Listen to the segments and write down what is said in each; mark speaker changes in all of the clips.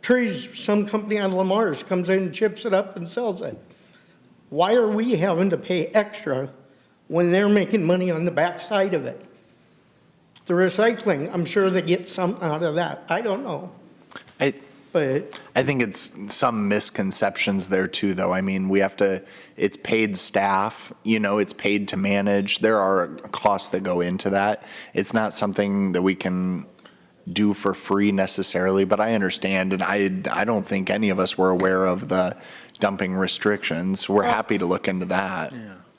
Speaker 1: trees, some company on Lamar's comes in and chips it up and sells it. Why are we having to pay extra when they're making money on the backside of it? The recycling, I'm sure they get some out of that. I don't know,
Speaker 2: I,
Speaker 1: but
Speaker 2: I think it's some misconceptions there too, though. I mean, we have to, it's paid staff, you know, it's paid to manage. There are costs that go into that. It's not something that we can do for free necessarily, but I understand. And I, I don't think any of us were aware of the dumping restrictions. We're happy to look into that.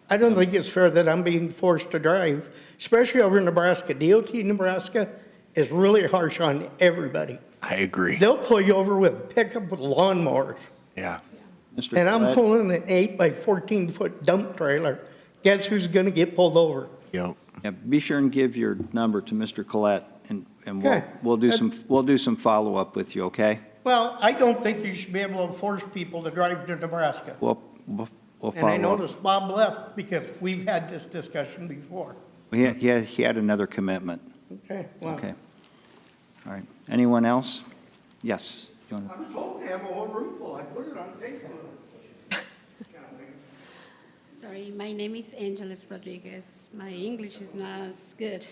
Speaker 1: I don't think it's fair that I'm being forced to drive, especially over in Nebraska. DOT Nebraska is really harsh on everybody.
Speaker 2: I agree.
Speaker 1: They'll pull you over with pickup with lawnmowers.
Speaker 2: Yeah.
Speaker 3: Mr.
Speaker 1: And I'm
Speaker 3: Collette?
Speaker 1: pulling an eight by 14 foot dump trailer. Guess who's going to get pulled over?
Speaker 2: Yep.
Speaker 3: Yeah, be sure and give your number to Mr. Collette, and, and we'll,
Speaker 1: Okay.
Speaker 3: we'll do some, we'll do some follow-up with you, okay?
Speaker 1: Well, I don't think you should be able to force people to drive to Nebraska.
Speaker 3: We'll, we'll we'll
Speaker 1: And I
Speaker 3: follow up.
Speaker 1: noticed Bob left because we've had this discussion before.
Speaker 3: He, had- he had- he had another commitment.
Speaker 1: Okay, well,
Speaker 3: Okay. All right. Anyone else? Yes. You wanna-
Speaker 1: I was hoping to have a whole room full. I put it on Facebook.
Speaker 4: Sorry, my name is Angeles Rodriguez. My English is not as good.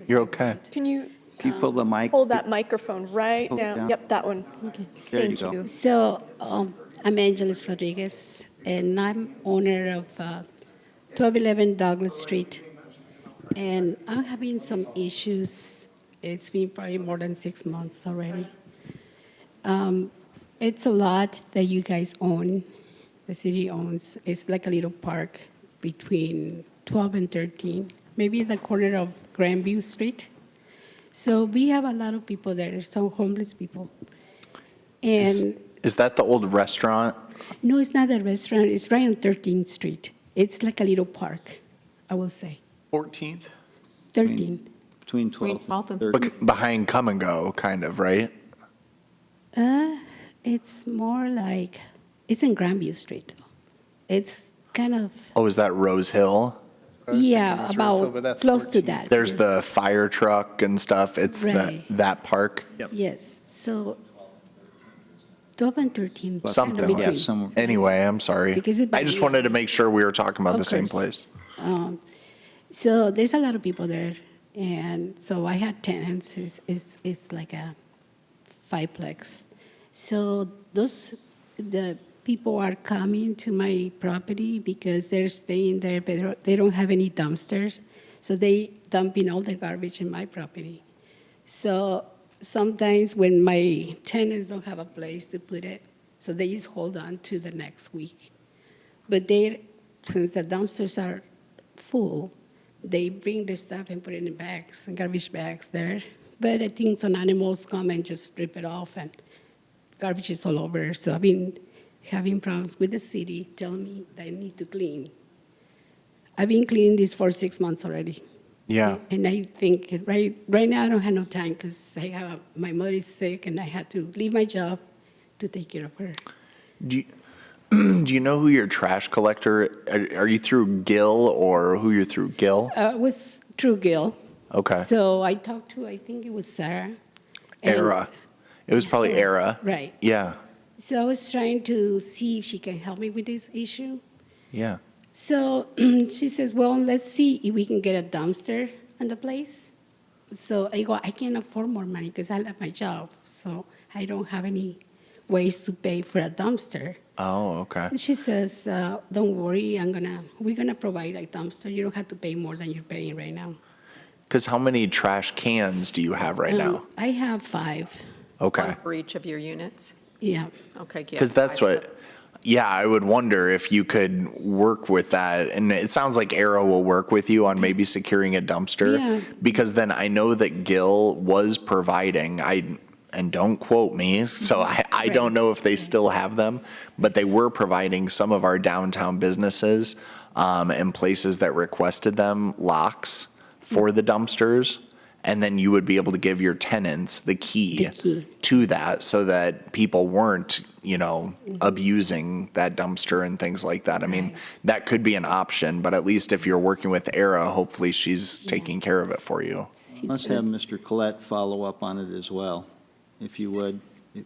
Speaker 4: as
Speaker 2: You're
Speaker 4: I
Speaker 2: okay.
Speaker 4: want.
Speaker 5: Can you
Speaker 3: If you pull the mic,
Speaker 5: hold that microphone right
Speaker 3: Hold it down.
Speaker 5: down? Yep, that one. Okay.
Speaker 3: There you
Speaker 5: Thank
Speaker 3: go.
Speaker 5: you.
Speaker 4: So um, I'm Angeles Rodriguez, and I'm owner of uh, 1211 Douglas Street. And I'm having some issues. It's been probably more than six months already. Um, It's a lot that you guys own, the city owns. It's like a little park between 12 and 13, maybe the corner of Grandview Street. So we have a lot of people there, some homeless people.
Speaker 2: Is,
Speaker 4: And
Speaker 2: is that the old restaurant?
Speaker 4: no, it's not a restaurant. It's right on 13th Street. It's like a little park, I will say.
Speaker 2: 14th?
Speaker 4: 13.
Speaker 3: between 12
Speaker 6: 12
Speaker 3: and
Speaker 6: and
Speaker 3: 13.
Speaker 2: Bec- behind Come and Go, kind of, right?
Speaker 4: Uh, it's more like, it's in Grandview Street. It's kind of,
Speaker 2: Oh, is that Rose Hill?
Speaker 4: yeah, about close to that.
Speaker 2: There's the fire truck and stuff. It's that,
Speaker 4: Right.
Speaker 2: that park.
Speaker 4: Yes, so 12 and 13. kind of
Speaker 2: Something
Speaker 3: Yeah,
Speaker 4: between.
Speaker 2: like,
Speaker 3: somewhere.
Speaker 2: anyway, I'm sorry.
Speaker 4: Because it-
Speaker 2: I just wanted to make sure we were talking about
Speaker 4: Of
Speaker 2: the same place.
Speaker 4: course. Um, So there's a lot of people there, and so I had tenants, it's, it's, it's like a fiveplex. So those, the people are coming to my property because they're staying there, but they don't- they don't have any dumpsters, so they dumping all their garbage in my property. So sometimes when my tenants don't have a place to put it, so they just hold on to the next week. But they, since the dumpsters are full, they bring their stuff and put it in bags, garbage bags there. But I think some animals come and just rip it off and garbage is all over. So I've been having problems with the city, tell me that I need to clean. I've been cleaning this for six months already.
Speaker 2: Yeah.
Speaker 4: And I think, right, right now I don't have no time because I have, my mother is sick and I had to leave my job to take care of her.
Speaker 2: Do you, do you know who your trash collector, are, are you through Gill or who you're through Gill?
Speaker 4: Uh, it was through Gil.
Speaker 2: Okay.
Speaker 4: So I talked to, I think it was Sarah. And-
Speaker 2: Era. It was probably Era.
Speaker 4: Right.
Speaker 2: Yeah,
Speaker 4: So I was trying to see if she can help me with this issue.
Speaker 2: yeah.
Speaker 4: So she says, well, let's see if we can get a dumpster on the place. So I go, I can't afford more money because I left my job. So I don't have any ways to pay for a dumpster.
Speaker 2: Oh, okay.
Speaker 4: And she says, uh, don't worry, I'm gonna, we're gonna provide a dumpster. You don't have to pay more than you're paying right now.
Speaker 2: Because how many trash cans do you have right
Speaker 4: Um,
Speaker 2: now?
Speaker 4: I have five,
Speaker 2: Okay.
Speaker 6: One for each of your units?
Speaker 4: yeah.
Speaker 6: Okay, yeah.
Speaker 2: Because that's
Speaker 6: I-
Speaker 2: what, yeah, I would wonder if you could work with that. And it sounds like Arrow will work with you on maybe securing a dumpster.
Speaker 4: Yeah.
Speaker 2: Because then I know that Gil was providing, I, and don't quote me, so I, I don't know if they still have them, but they were providing some of our downtown businesses um, and places that requested them locks for the dumpsters. And then you would be able to give your tenants the key
Speaker 4: The key.
Speaker 2: to that so that people weren't, you know, abusing that dumpster and things like that. I mean, that could be an option, but at least if you're working with Era, hopefully she's taking care of it for you.
Speaker 3: Let's have Mr. Collette follow up on it as well, if you would.